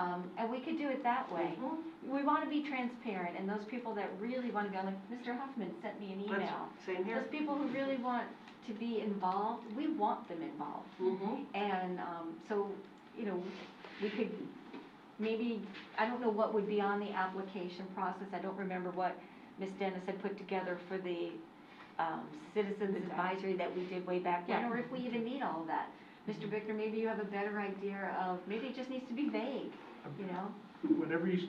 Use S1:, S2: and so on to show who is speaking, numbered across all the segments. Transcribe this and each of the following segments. S1: Um, and we could do it that way.
S2: Mm-hmm.
S1: We want to be transparent, and those people that really want to go, like, Mr. Huffman sent me an email.
S2: That's- Same
S1: Those
S2: here.
S1: people who really want to be involved, we want them involved.
S2: Mhm.
S1: And, um, so, you know, we could, maybe, I don't know what would be on the application process, I don't remember what Ms. Dennis had put together for the, um, citizens advisory that we did way back when, or if we even need all of that. Mr.
S2: Mm-hmm.
S1: Bickner, maybe you have a better idea of, maybe it just needs to be vague, you know?
S3: Whenever you,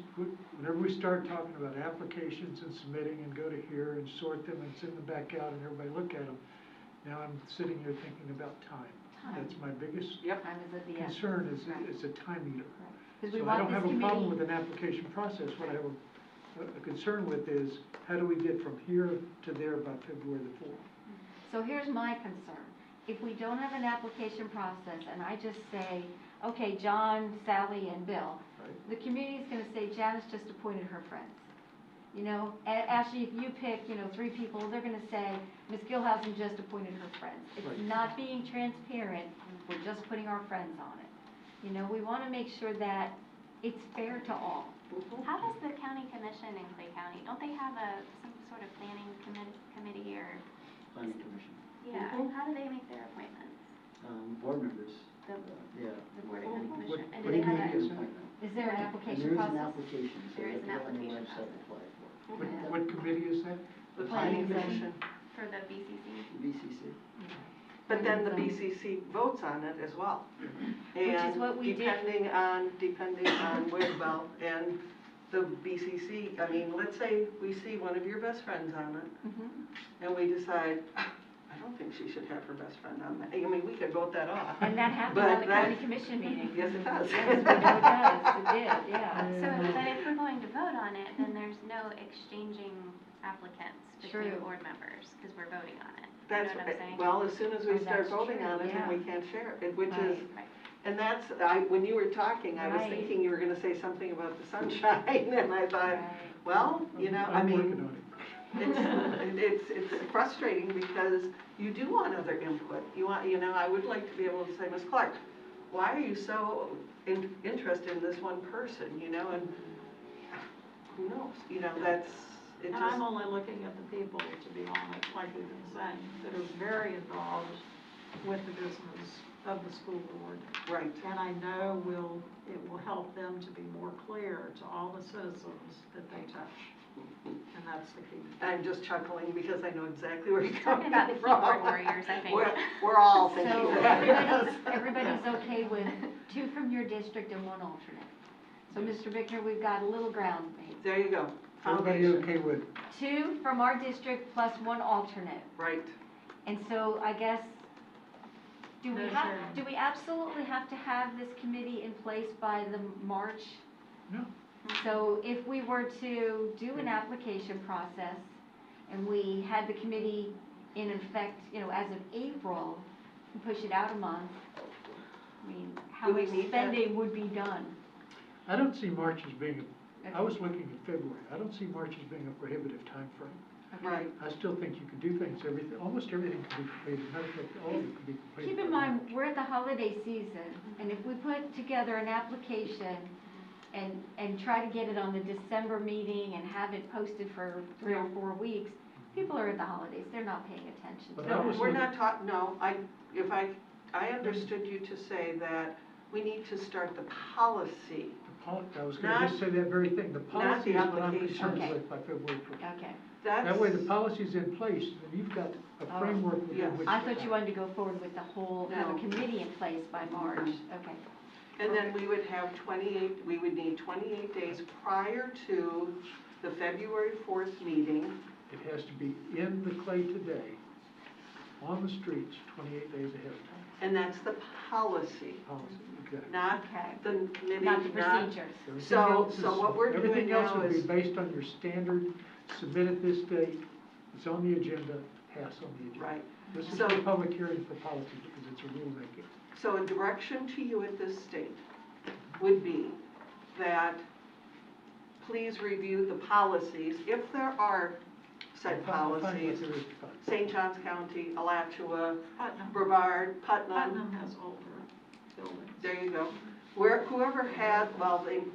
S3: whenever we start talking about applications and submitting and go to here and sort them and send them back out and everybody look at them, now I'm sitting here thinking about time. That's my biggest
S2: Yep.
S1: Time is at the end,
S3: concern is,
S1: Right.
S3: is a time eater.
S1: because we
S3: So I
S1: want
S3: don't
S1: this
S3: have a
S1: committee,
S3: problem with an application process. What I have a, a concern with is, how do we get from here to there by February the fourth?
S1: so here's my concern. If we don't have an application process, and I just say, okay, John, Sally, and Bill,
S3: Right.
S1: the community's gonna say Janice just appointed her friends. You know, A- Ashley, if you pick, you know, three people, they're gonna say, Ms. Gilhousen just appointed her friends.
S3: Right.
S1: It's not being transparent, we're just putting our friends on it. You know, we wanna make sure that it's fair to all. Mm-hmm.
S2: Mhm.
S4: How does the county commission in Clay County, don't they have a, some sort of planning commi- committee or?
S5: planning commission,
S4: Yeah,
S2: Mhm.
S4: how do they make their appointments?
S5: um, board members,
S4: The,
S5: uh, yeah.
S4: the board of county
S2: What-
S4: commission? And
S3: what
S4: do they
S3: do you
S4: have
S3: mean
S4: a?
S3: is-
S1: Is there an
S5: And
S1: application
S5: there is an
S1: process?
S5: application, so
S4: There
S5: you
S4: is
S5: have
S4: an
S5: to go on the
S4: application process.
S5: website to apply for
S3: What,
S4: Yeah.
S3: what committee is that?
S2: The
S1: Planning
S2: planning
S1: commission.
S2: commission.
S4: For the BCC?
S5: it. BCC,
S2: But then the
S1: Planning
S2: BCC votes on it as well.
S1: is what we did.
S2: And depending on, depending on where, well, and the BCC, I mean, let's say we see one of your best friends on it,
S1: Mhm.
S2: and we decide, "Ah, I don't think she should have her best friend on that. I mean, we could vote that off.
S1: And that happened
S2: But
S1: on the county
S2: that-
S1: commission meeting.
S2: Yes, it does.
S1: Yes, we know it does, it did, yeah.
S4: So, but if we're going to vote on it, then there's no exchanging applicants between
S1: True.
S4: board members, because we're voting on it. You know
S2: That's,
S4: what I'm saying?
S2: well, as soon as
S1: Oh,
S2: we start
S1: that's
S2: voting
S1: true,
S2: on it, then we can't share it, which is,
S4: Right.
S2: and that's, I, when you were talking, I was
S1: Right.
S2: thinking you were gonna say something about the sunshine, and I thought, well, you know, I
S3: I'm working
S2: mean,
S3: on it.
S2: it's, it's, it's frustrating because you do want other input. You want, you know, I would like to be able to say, Ms. Clark, why are you so in, interested in this one person, you know, and who knows, you know, that's, it
S6: And I'm
S2: just,
S6: only looking at the people, to be honest, like you've been saying, that are very involved with the business of the school board.
S2: right,
S6: And I know will, it will help them to be more clear to all the citizens that they touch. And that's the key.
S2: I'm just chuckling because I know exactly where you're
S4: Talking
S2: coming
S4: about the keyboard
S2: from.
S4: warriors, I think.
S2: We're, we're all
S1: So
S2: thinking that, yes.
S1: everybody's, everybody's okay with two from your district and one alternate. So, Mr. Bickner, we've got a little ground made.
S2: There you go,
S3: Everybody
S2: foundation,
S3: okay with
S1: Two from our district plus one alternate.
S2: right.
S1: And so I guess, do we
S6: No
S1: have,
S6: sharing.
S1: do we absolutely have to have this committee in place by the March?
S3: No.
S1: So if we were to do an application process and we had the committee in effect, you know, as of April, and push it out a month, I mean, how
S2: Do we
S1: much
S2: need that?
S1: spending would be done?
S3: I don't see March as being, a- I was looking at February, I don't see March as being a prohibitive time frame.
S1: Okay.
S2: Right,
S3: I still think you can do things, everything, almost everything can be completed, matter of fact, all of it can be completed.
S1: Keep in
S3: by
S1: mind,
S3: March.
S1: we're at the holiday season, and if we put together an application and, and try to get it on the December meeting and have it posted for three or four weeks, people are at the holidays, they're not paying attention
S3: But
S1: to
S3: I
S2: no,
S3: was
S2: we're
S3: looking-
S2: not talking, no, I, if I, I understood you to say that we need to start the policy.
S3: The pol, I was gonna just say that very thing, the
S2: Not
S3: policy
S2: the
S3: is what I'm
S2: application.
S3: concerned
S1: Okay.
S3: with by February first.
S1: it. Okay,
S2: That's.
S3: That way, the policy's in place, and you've got
S1: Oh,
S3: a framework
S2: yes.
S3: within which.
S1: I
S3: to
S1: thought you
S3: act.
S1: wanted to go forward with the whole, have a
S2: No.
S1: committee in place by March, okay.
S2: And then we would have 28, we would need 28 days prior to the February 4th meeting.
S3: It has to be in the clay today, on the streets, twenty-eight days ahead of time,
S2: And that's the policy,
S3: policy, exactly.
S2: not
S1: Okay.
S2: the committee,
S1: Not the
S2: not.
S1: procedures.
S3: Everything
S2: So-
S3: else
S2: so
S3: is-
S2: what we're doing
S3: Everything else
S2: now
S3: would be
S2: is-
S3: based on your standard, submit at this date, it's on the agenda, pass on the agenda.
S2: Right.
S3: This is
S2: So-
S3: a public hearing for policy, because it's a rulemaking.
S2: So a direction to you at this state would be that please review the policies, if there are
S3: Define-
S2: said
S3: define what
S2: policies.
S3: there is to define.
S2: St. John's County, Alachua,
S6: Putnam,
S2: Brevard, Putnam,
S6: Putnam has older buildings.
S2: there you go. Where, whoever had, well, they,